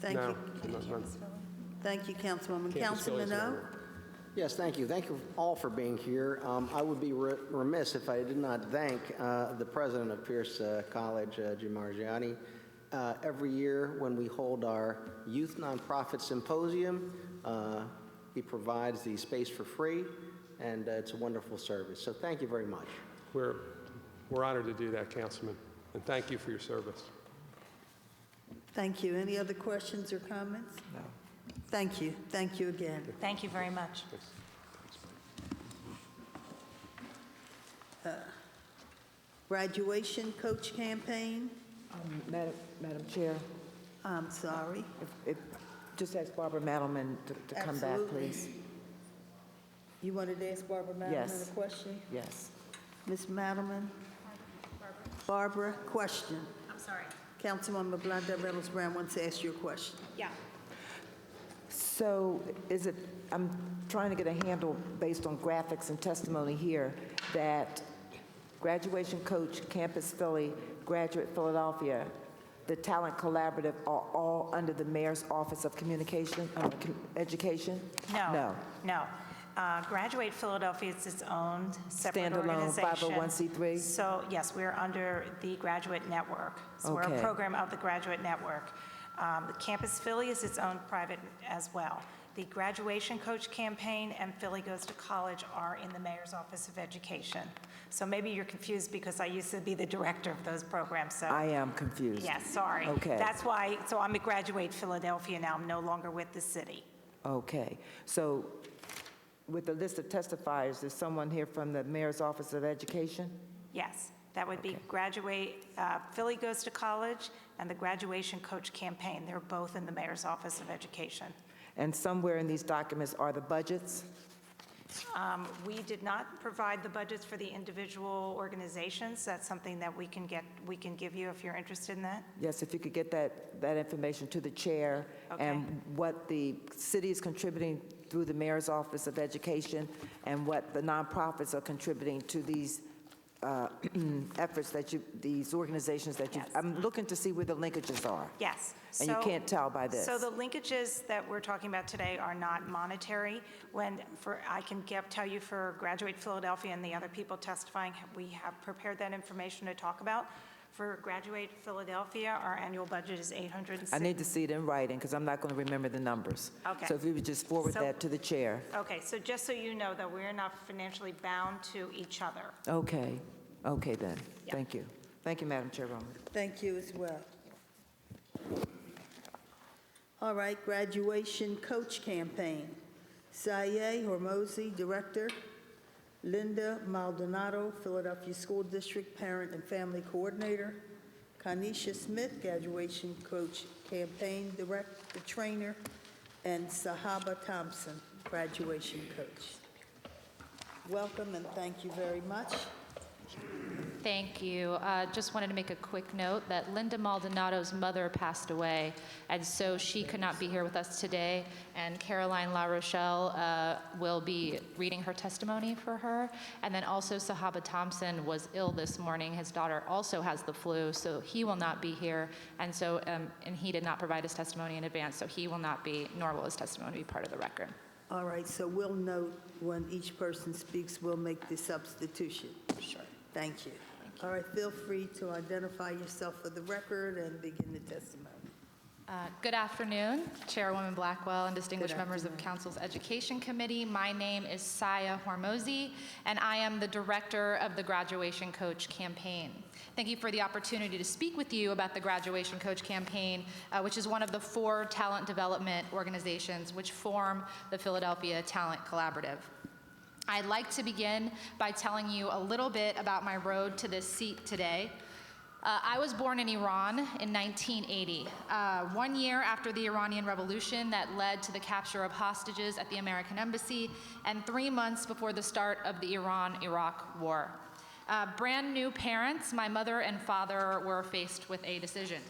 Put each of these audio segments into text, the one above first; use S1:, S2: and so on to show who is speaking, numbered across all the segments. S1: Thank
S2: No,
S1: you,
S2: not- not-
S1: thank you, Councilwoman. Councilman O?
S3: Yes, thank you. Thank you all for being here. Um, I would be re- remiss if I did not thank uh, the president of Pierce uh, College, uh, Jim Margiani. Uh, Every year, when we hold our Youth Nonprofit Symposium, uh, he provides the space for free, and uh, it's a wonderful service. So thank you very much.
S2: We're, we're honored to do that, Councilman, and thank you for your service.
S1: Thank you. Any other questions or comments? No. Thank you, thank you again.
S4: Thank you very much.
S1: Graduation coach campaign,
S5: Um, Madam Madam Chair,
S1: I'm sorry.
S5: if- if, just ask Barbara Madelman to- to come back,
S1: Absolutely.
S5: please.
S1: You wanted to ask Barbara Madelman
S5: Yes.
S1: a question?
S5: Yes.
S1: Ms. Madelman? Barbara, question.
S6: I'm sorry.
S1: Councilwoman Blondell Reynolds Brown wants to ask you a question.
S6: Yeah.
S5: So is it, I'm trying to get a handle based on graphics and testimony here, that graduation coach, Campus Philly, Graduate Philadelphia, the Talent Collaborative are all under the mayor's Office of Communication, uh, Com- Education?
S4: No,
S5: No.
S4: no. Uh, Graduate Philadelphia is its own separate
S5: Standalone
S4: organization.
S5: 501c3?
S4: So, yes, we're under the Graduate Network. So we're a
S5: Okay.
S4: program of the Graduate Network. Um, the Campus Philly is its own private as well. The Graduation Coach Campaign and Philly Goes to College are in the Mayor's Office of Education. So maybe you're confused because I used to be the director of those programs, so.
S5: I am confused.
S4: Yes, sorry.
S5: Okay.
S4: That's why, so I'm a Graduate Philadelphia now. I'm no longer with the city.
S5: Okay, so with the list of testifiers, is someone here from the Mayor's Office of Education?
S4: Yes, that would be graduate, uh, Philly Goes to College and the Graduation Coach Campaign. They're both in the Mayor's Office of Education.
S5: And somewhere in these documents are the budgets?
S4: Um, We did not provide the budgets for the individual organizations. That's something that we can get, we can give you if you're interested in that.
S5: Yes, if you could get that, that information to the chair and what the city is contributing through the Mayor's Office of Education and what the nonprofits are contributing to these uh, efforts that you, these organizations that you,
S4: Yes.
S5: I'm looking to see where the linkages are.
S4: Yes.
S5: And you
S4: So-
S5: can't tell by this.
S4: So the linkages that we're talking about today are not monetary. When, for, I can get, tell you for Graduate Philadelphia and the other people testifying, we have prepared that information to talk about. For Graduate Philadelphia, our annual budget is 806.
S5: I need to see it in writing because I'm not going to remember the numbers.
S4: Okay.
S5: So if you would just forward
S4: So-
S5: that to the chair.
S4: Okay, so just so you know, that we're not financially bound to each other.
S5: Okay, okay then.
S4: Yeah.
S5: Thank you. Thank you, Madam Chairwoman.
S1: Thank you as well. All right, graduation coach campaign. Saye Hormozy, Director. Linda Maldonado, Philadelphia School District Parent and Family Coordinator. Kanisha Smith, Graduation Coach Campaign Director, Trainer. And Sahaba Thompson, Graduation Coach. Welcome and thank you very much.
S7: Thank you. Uh, Just wanted to make a quick note that Linda Maldonado's mother passed away, and so she could not be here with us today. And Caroline La Rochelle uh, will be reading her testimony for her. And then also Sahaba Thompson was ill this morning. His daughter also has the flu, so he will not be here. And so, um, and he did not provide his testimony in advance, so he will not be, nor will his testimony be part of the record.
S1: All right, so we'll note when each person speaks, we'll make the substitution. Sure. Thank you. All right, feel free to identify yourself for the record and begin the testimony.
S7: Uh, Good afternoon, Chairwoman Blackwell and distinguished
S1: Good
S7: members of Council's Education Committee. My name is Saya Hormozy, and I am the Director of the Graduation Coach Campaign. Thank you for the opportunity to speak with you about the Graduation Coach Campaign, uh, which is one of the four talent development organizations which form the Philadelphia Talent Collaborative. I'd like to begin by telling you a little bit about my road to this seat today. Uh, I was born in Iran in 1980, uh, one year after the Iranian Revolution that led to the capture of hostages at the American Embassy, and three months before the start of the Iran Iraq War. Uh, brand new parents, my mother and father were faced with a decision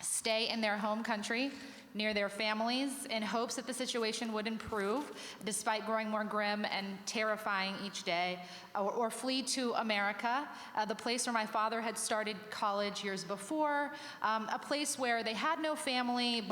S7: stay in their home country near their families in hopes that the situation would improve despite growing more grim and terrifying each day, or, or flee to America, uh, the place where my father had started college years before, um, a place where they had no family.